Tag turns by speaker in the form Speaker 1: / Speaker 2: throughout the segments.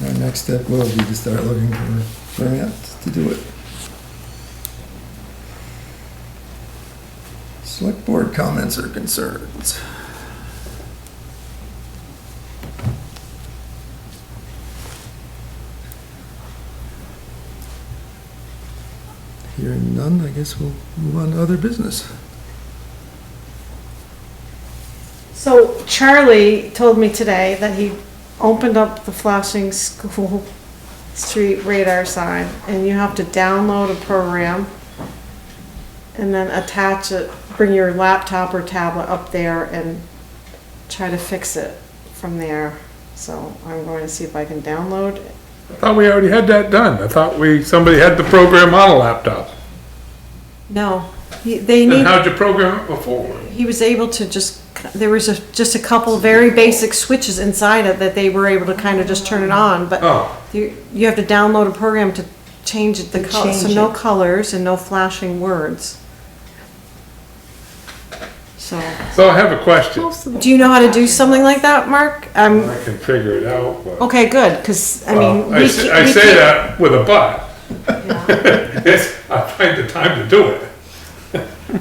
Speaker 1: the next step will be to start looking for grants to do it. Select board comments or concerns. Hearing none, I guess we'll move on to other business.
Speaker 2: So Charlie told me today that he opened up the flashing school street radar sign and you have to download a program and then attach it, bring your laptop or tablet up there and try to fix it from there. So I'm going to see if I can download it.
Speaker 3: I thought we already had that done. I thought we, somebody had the program on a laptop.
Speaker 2: No, he- they
Speaker 3: Then
Speaker 2: need,
Speaker 3: how'd you program it before?
Speaker 2: he was able to just, there was a, just a couple very basic switches inside it that they were able to kind of just turn it on, but
Speaker 3: Oh,
Speaker 2: You, you have to download a program to change it, the
Speaker 4: To
Speaker 2: color, so
Speaker 4: change
Speaker 2: no
Speaker 4: it.
Speaker 2: colors and no flashing words. So,
Speaker 3: so I have a question.
Speaker 2: do you know how to do something like that, Mark? Um,
Speaker 3: I can figure it out, but.
Speaker 2: okay, good, cause oh, I mean.
Speaker 3: Uh, Well, I
Speaker 2: we
Speaker 3: say,
Speaker 2: ca-
Speaker 3: I
Speaker 2: we
Speaker 3: say
Speaker 2: can't-
Speaker 3: that with a but. It's, I find the time to do it.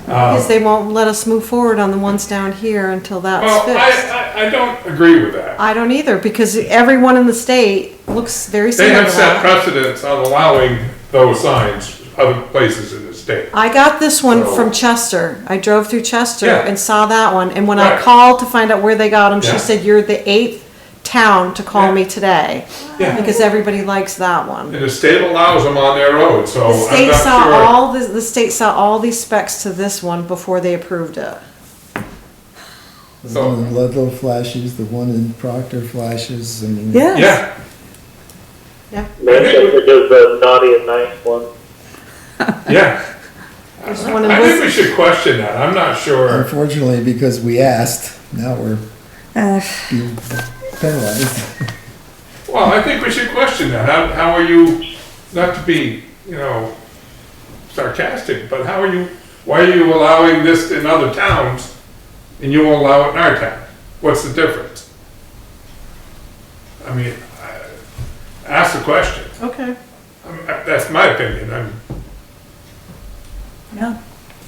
Speaker 3: uh,
Speaker 2: Cause they won't let us move forward on the ones down here until that's
Speaker 3: Well,
Speaker 2: fixed.
Speaker 3: I, I, I don't agree with that.
Speaker 2: I don't either, because everyone in the state looks very
Speaker 3: They
Speaker 2: similar
Speaker 3: have
Speaker 2: to
Speaker 3: set
Speaker 2: that.
Speaker 3: precedents on allowing those signs other places in the state.
Speaker 2: I got this one
Speaker 3: So-
Speaker 2: from Chester. I drove through Chester
Speaker 3: Yeah.
Speaker 2: and saw that one. And when I
Speaker 3: Right.
Speaker 2: called to find out where they got them, she
Speaker 3: Yeah.
Speaker 2: said, "You're the eighth town to call me today
Speaker 3: Yeah,
Speaker 2: because everybody likes that one."
Speaker 3: and the state allows them on their road, so
Speaker 2: The
Speaker 3: Oh, I'm
Speaker 2: state saw
Speaker 3: not sure.
Speaker 2: all this, the state saw all these specs to this one before they approved it.
Speaker 1: The
Speaker 3: So-
Speaker 1: one in Ludlow flashes, the one in Proctor flashes, I mean.
Speaker 3: Yeah,
Speaker 5: Mention because the naughty and nice one.
Speaker 3: yeah.
Speaker 2: There's one in
Speaker 3: I think we
Speaker 2: Worcester.
Speaker 3: should question that. I'm not sure.
Speaker 1: Unfortunately, because we asked, now we're
Speaker 4: Uh,
Speaker 1: being penalized.
Speaker 3: Well, I think we should question that. How, how are you, not to be, you know, sarcastic, but how are you, why are you allowing this in other towns and you won't allow it in our town? What's the difference? I mean, I- ask the question.
Speaker 2: Okay.
Speaker 3: I mean, That's my opinion. I'm,
Speaker 4: yeah.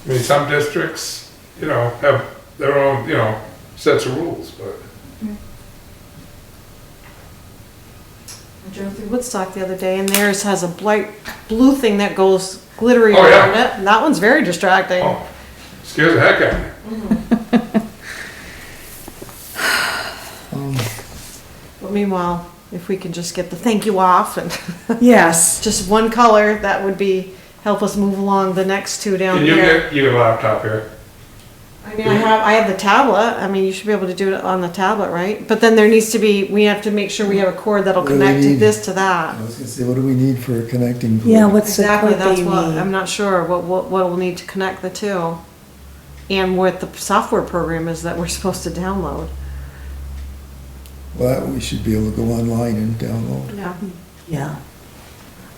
Speaker 3: I mean, some districts, you know, have their own, you know, sets of rules, but.
Speaker 2: I drove through Woodstock the other day, and theirs has a bright blue thing that goes glittery
Speaker 3: Oh, yeah.
Speaker 2: around it. And that one's very distracting.
Speaker 3: Oh, scares the heck out of me.
Speaker 1: Um,
Speaker 2: But meanwhile, if we can just get the thank you off and.
Speaker 4: Yes.
Speaker 2: just one color, that would be, help us move along the next two down
Speaker 3: Can you
Speaker 2: here.
Speaker 3: get your laptop here?
Speaker 2: I mean, I have, I have the tablet, I mean, you should be able to do it on the tablet, right? But then there needs to be, we have to make sure we have a cord that'll
Speaker 1: What do we
Speaker 2: connect to
Speaker 1: need?
Speaker 2: this to
Speaker 1: I
Speaker 2: that.
Speaker 1: was gonna say, what do we need for a connecting? pole?
Speaker 4: Yeah, what's the
Speaker 2: Exactly,
Speaker 4: code that
Speaker 2: that's
Speaker 4: you
Speaker 2: what, I'm
Speaker 4: need?
Speaker 2: not sure what, what, what we'll need to connect the two. And what the software program is that we're supposed to download.
Speaker 1: Well, we should be able to go online and download.
Speaker 2: Yeah.
Speaker 4: Yeah.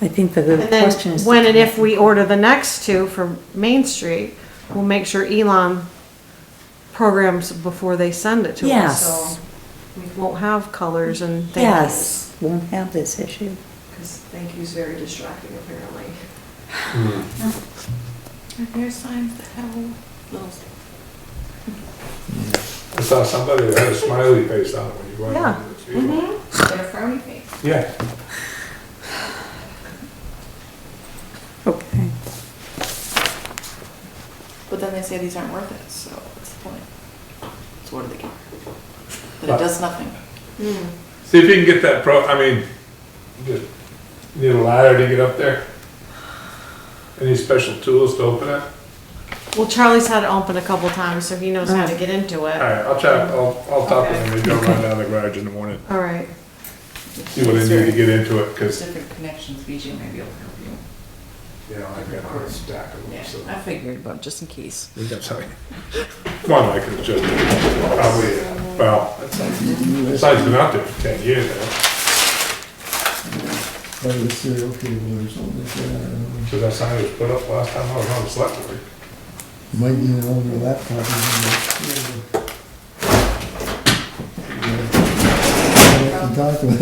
Speaker 4: I think the good
Speaker 2: And then,
Speaker 4: question is. to
Speaker 2: when and
Speaker 4: connect
Speaker 2: if we order the next two for Main Street, we'll make sure Elon programs before they send it to us,
Speaker 4: Yes.
Speaker 2: so we won't have colors and thank yous.
Speaker 4: Yes, won't have this issue.
Speaker 2: Because thank you's very distracting apparently.
Speaker 3: Hmm. I saw somebody that had a smiley face on when you went
Speaker 2: Yeah. Mm-hmm.
Speaker 3: on the table. Yeah.
Speaker 4: Okay.
Speaker 6: But then they say these aren't worth it, so what's the point? So what do they care? But
Speaker 3: But-
Speaker 6: it does nothing.
Speaker 3: See if you can get that pro, I mean, just need a ladder to get up there? Any special tools to open it?
Speaker 2: Well, Charlie's had it open a couple times, so he knows how to get into
Speaker 3: All
Speaker 2: it.
Speaker 3: right, I'll check, I'll, I'll talk to
Speaker 2: Okay.
Speaker 3: them, maybe I'll run down the garage in the morning,
Speaker 2: All right,
Speaker 3: see what I need to get into it,
Speaker 6: There's
Speaker 3: because,
Speaker 6: different connections, BJ maybe will help you.
Speaker 3: you know, I've got a whole stack of them,
Speaker 6: Yeah,
Speaker 3: so.
Speaker 6: I figured, but just in case.
Speaker 3: we got something. One I could just, probably, well, the sign's been out there for ten years now,
Speaker 1: Part of the serial cable or something like that, I don't know.
Speaker 3: because that sign was put up last time I was on the select board.
Speaker 1: Might need an older laptop. or something. Yeah. Talk about it.